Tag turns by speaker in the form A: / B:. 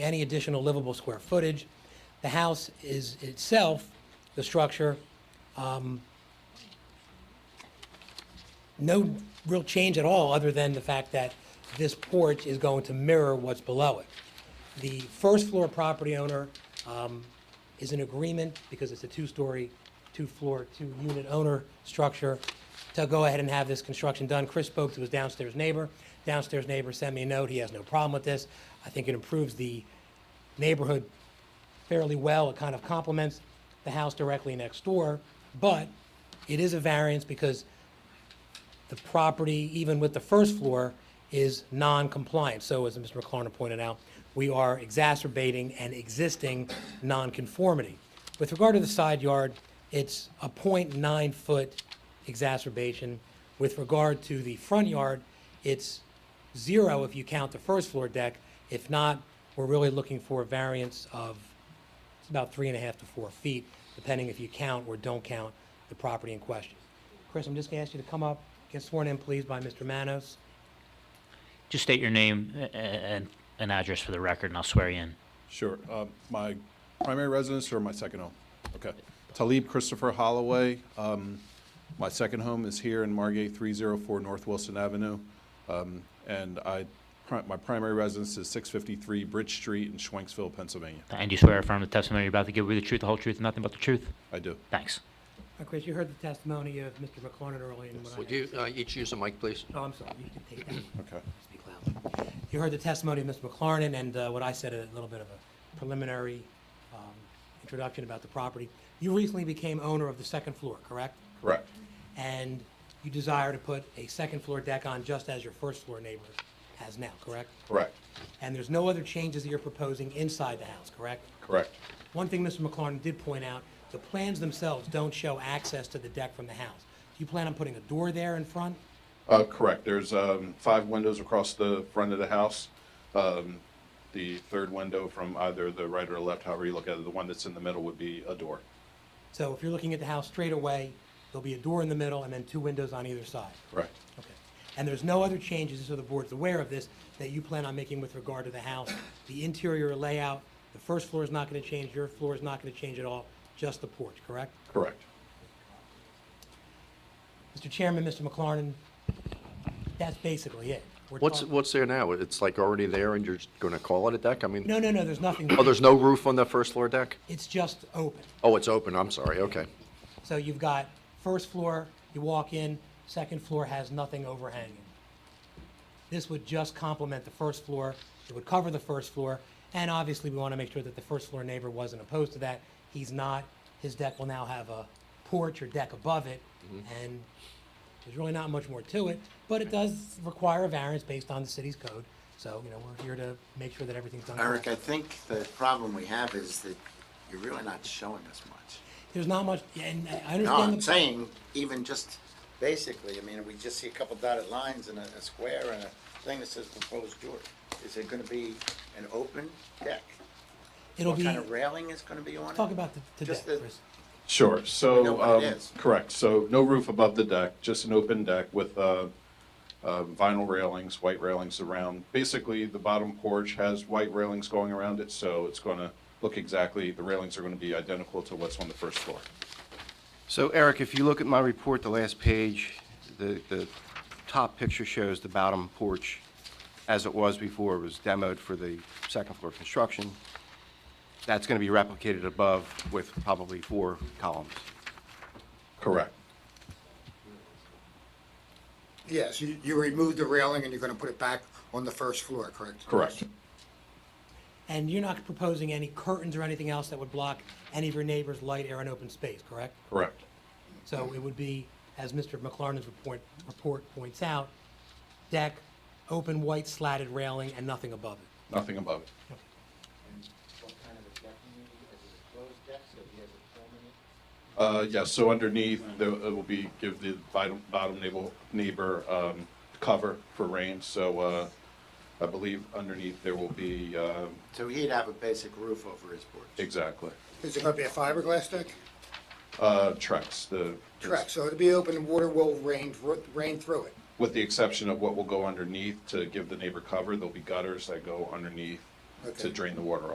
A: any additional livable square footage. The house is itself, the structure, um, no real change at all, other than the fact that this porch is going to mirror what's below it. The first floor property owner um, is in agreement, because it's a two-story, two-floor, two-unit owner structure, to go ahead and have this construction done. Chris spoke to his downstairs neighbor. Downstairs neighbor sent me a note, he has no problem with this. I think it improves the neighborhood fairly well. It kind of complements the house directly next door, but it is a variance because the property, even with the first floor, is non-compliant. So as Mr. McLaren pointed out, we are exacerbating an existing non-conformity. With regard to the side yard, it's a 0.9-foot exacerbation. With regard to the front yard, it's zero if you count the first floor deck. If not, we're really looking for a variance of it's about three and a half to four feet, depending if you count or don't count the property in question. Chris, I'm just going to ask you to come up, get sworn in, please, by Mr. Manos.
B: Just state your name a- a- and an address for the record, and I'll swear you in.
C: Sure. Uh, My primary residence or my second home? Okay. Talib Christopher Holloway. Um, My second home is here in Margate, 304 North Wilson Avenue. Um, And I, pri- my primary residence is 653 Bridge Street in Schwenksville, Pennsylvania.
B: And you swear or affirm the testimony you're about to give will be the truth, the whole truth, and nothing but the truth?
C: I do.
B: Thanks.
A: Uh, Chris, you heard the testimony of Mr. McLaren earlier. and what I-
D: Would you uh, each use a mic, please?
A: Oh, I'm sorry, you can take that.
C: Okay.
A: Speak loud. You heard the testimony of Mr. McLaren and uh, what I said, a little bit of a preliminary um, introduction about the property. You recently became owner of the second floor, correct?
C: Correct.
A: And you desire to put a second floor deck on just as your first floor neighbor has now, correct?
C: Correct.
A: And there's no other changes that you're proposing inside the house, correct?
C: Correct.
A: One thing Mr. McLaren did point out, the plans themselves don't show access to the deck from the house. Do you plan on putting a door there in front?
C: Uh, Correct. There's um, five windows across the front of the house. Um, The third window from either the right or left, however you look at it, the one that's in the middle would be a door.
A: So if you're looking at the house straight away, there'll be a door in the middle and then two windows on either side.
C: Correct.
A: Okay. And there's no other changes, so the board's aware of this, that you plan on making with regard to the house. The interior layout, the first floor is not going to change, your floor is not going to change at all, just the porch, correct?
C: Correct.
A: Mr. Chairman, Mr. McLaren, that's basically it. We're
D: What's,
A: talk-
D: what's there now? It's like already there and you're just going to call it a deck? I mean,
A: No, no, no, there's nothing.
D: oh, there's no roof on the first floor deck?
A: It's just open.
D: Oh, it's open, I'm sorry, okay.
A: So you've got first floor, you walk in, second floor has nothing overhanging. This would just complement the first floor, it would cover the first floor, and obviously, we want to make sure that the first floor neighbor wasn't opposed to that. He's not, his deck will now have a porch or deck above it, and there's really not much more to it, but it does require a variance based on the city's code, so, you know, we're here to make sure that everything's done.
E: Eric, I
A: correctly.
E: think the problem we have is that you're really not showing us much.
A: There's not much, and I understand.
E: No, I'm
A: the-
E: saying, even just basically, I mean, we just see a couple dotted lines and a, a square and a thing that says proposed door. Is it gonna be an open deck?
A: It'll
E: What
A: be,
E: kind of railing is gonna be on it?
A: talk about the, the deck,
E: Just the-
A: Chris.
C: Sure,
E: We know
C: so,
E: what it
C: um,
E: is.
C: correct, so no roof above the deck, just an open deck with, uh, uh, vinyl railings, white railings around. Basically, the bottom porch has white railings going around it, so it's gonna look exactly, the railings are gonna be identical to what's on the first floor.
F: So Eric, if you look at my report, the last page, the, the top picture shows the bottom porch as it was before, it was demoed for the second floor construction. That's going to be replicated above with probably four columns.
C: Correct,
G: Yes, you, you removed the railing and you're gonna put it back on the first floor, correct?
C: correct,
A: And you're not proposing any curtains or anything else that would block any of your neighbor's light, air, and open space, correct?
C: correct,
A: So it would be, as Mr. McLaren's report, report points out, deck, open white slatted railing, and nothing above it.
C: nothing above it.
E: What kind of a deck you need? Is it a closed deck, so he has a permanent?
C: Uh, yeah, so underneath, there, it will be, give the bottom, bottom neighbor, neighbor, um, cover for rain, so, uh, I believe underneath there will be, uh,
E: So he'd have a basic roof over his porch.
C: exactly.
G: Is it gonna be a fiberglass deck?
C: Uh, Trex, the.
G: Correct, so it'll be open and water will rain, rain through it.
C: With the exception of what will go underneath to give the neighbor cover, there'll be gutters that go underneath to drain the water